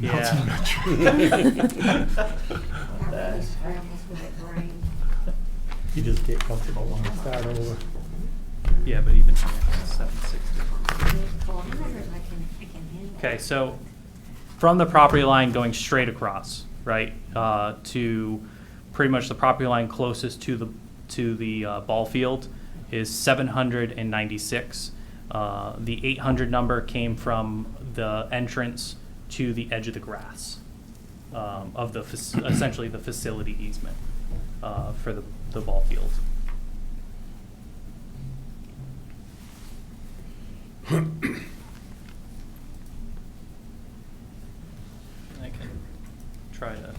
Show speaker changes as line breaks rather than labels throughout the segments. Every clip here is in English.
Yeah.
not
That really
That
scrambles my brain.
You just get comfortable when we start over.
Yeah, but even here, seven sixty.
Well, I'm not sure if I can, I can handle
Okay,
it.
so from the property line going straight across, right, uh, to pretty much the property line closest to the, to the uh, ball field is seven hundred and ninety-six. Uh, The eight hundred number came from the entrance to the edge of the grass um, of the, fac- essentially the facility easement uh, for the, the ball field. I can try to do that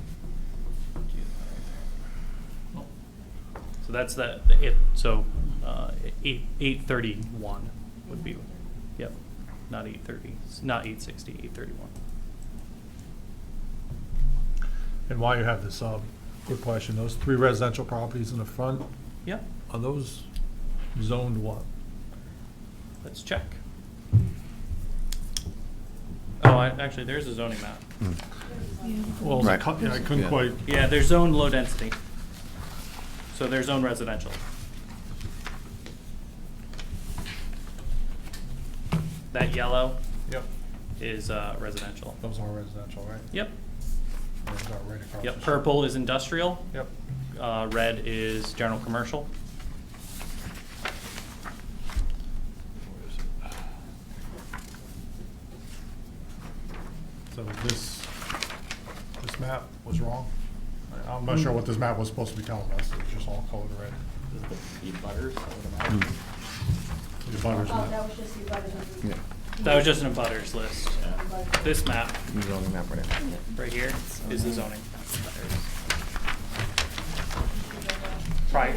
right there. So that's the, the it, so, uh, eight, eight thirty-one would be, yep, not eight thirty, not eight sixty, eight thirty-one.
And while you have this, um, quick question, those three residential properties in the front,
Yep,
are those zoned what?
let's check. Oh, I, actually, there's a zoning map.
Well, it's a
Right.
cut- yeah, I couldn't
Yeah.
quite,
Yeah, they're zoned low density. So they're zoned residential. That yellow
yep,
is uh, residential.
Oh.
those are residential, right?
Yep,
Those are right across the
yep,
street.
purple is industrial,
Yep,
uh, red is general commercial.
so this, this map was wrong. I- I'm not sure what this map was supposed to be telling us, it was just all colored red.
Hmm.
The butters
Oh, that
map.
was just the butters.
Yeah,
That was just an abutters list. This map
he's on the map right now.
right here is the zoning. Right.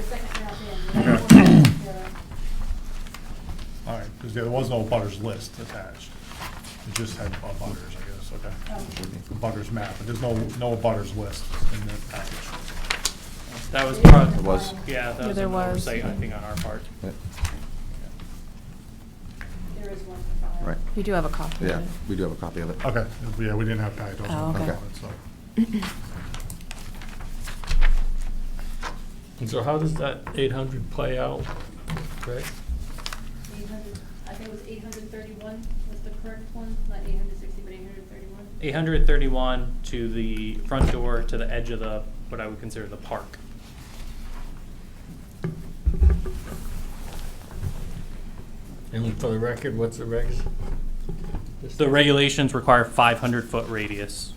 All right, because there was no butters list attached. It just had uh, butters, I guess, okay. The butters map, but there's no, no butters list in the package.
That was part,
It was.
yeah, that
Yeah,
was
there
an
was.
oversight, I think, on our part.
Yeah,
There is one for fire.
Right,
You do have a copy. of
yeah,
it.
we do have a copy of it.
Okay, yeah, we didn't have packed those.
Oh,
okay.
So how does that eight hundred play out, Greg?
800 I think it was eight hundred thirty-one was the correct one, not eight hundred sixty, but eight hundred thirty-one.
831 to the front door, to the edge of the, what I would consider the park.
And for the record, what's the regs?
The regulations require 500-foot radius.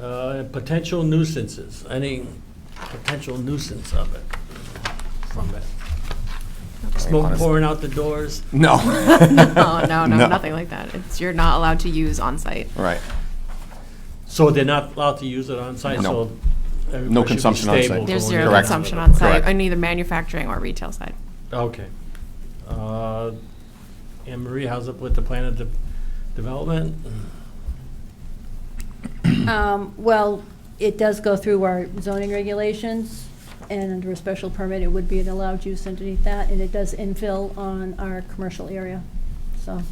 Uh, potential nuisances, any potential nuisance of it, from it. Smoke
honest-
pouring out the doors,
No.
No, Oh, no, no, nothing like that. It's, you're not allowed to use on-site.
Right,
so they're not allowed to use it on site,
No.
so. everybody
No
should be
consumption on
stable
site.
There's
going
zero
in.
Correct.
consumption on-site,
Correct.
on either manufacturing or retail side.
Okay. Uh, Anne Marie, how's it with the plan of de- development?
Um, well, it does go through our zoning regulations, and under a special permit, it would be an allowed use underneath that, and it does infill on our commercial area, so.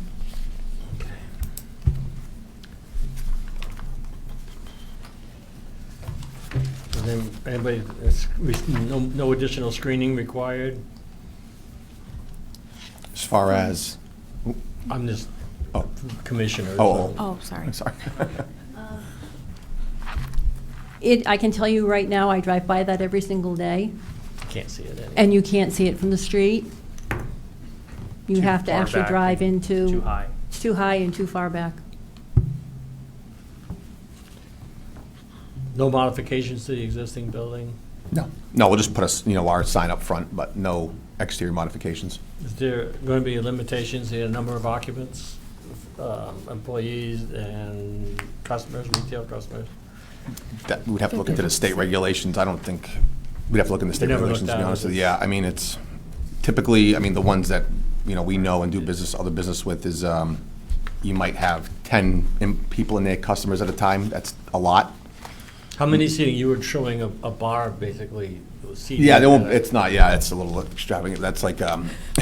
And then, anybody, it's- no, no additional screening required?
as far as,
I'm just
oh,
commissioner.
Oh,
Oh, sorry.
I'm sorry.
Uh. It, I can tell you right now, I drive by that every single day,
so Can't see it anyway.
and you can't see it from the street. You
Too
have to
far
actually
back
drive
and
into.
Too high.
It's too high and too far back.
No modifications to the existing building?
No, no, we'll just put us, you know, our sign up front, but no exterior modifications.
Is there going to be limitations in the number of occupants, um, employees and customers, retail customers?
That, we'd have to look into the state regulations, I don't think, we'd have to look into state
never looked
regulations, to be
down,
honest
is
with you.
it?
Yeah, I mean, it's typically, I mean, the ones that, you know, we know and do business, other business with is, um, you might have ten in- people in there, customers at a time, that's a lot.
How many seating? You were showing a a bar, basically. seating
Yeah, they won't,
that are-
it's not, yeah, it's a little extravagant, that's like, um,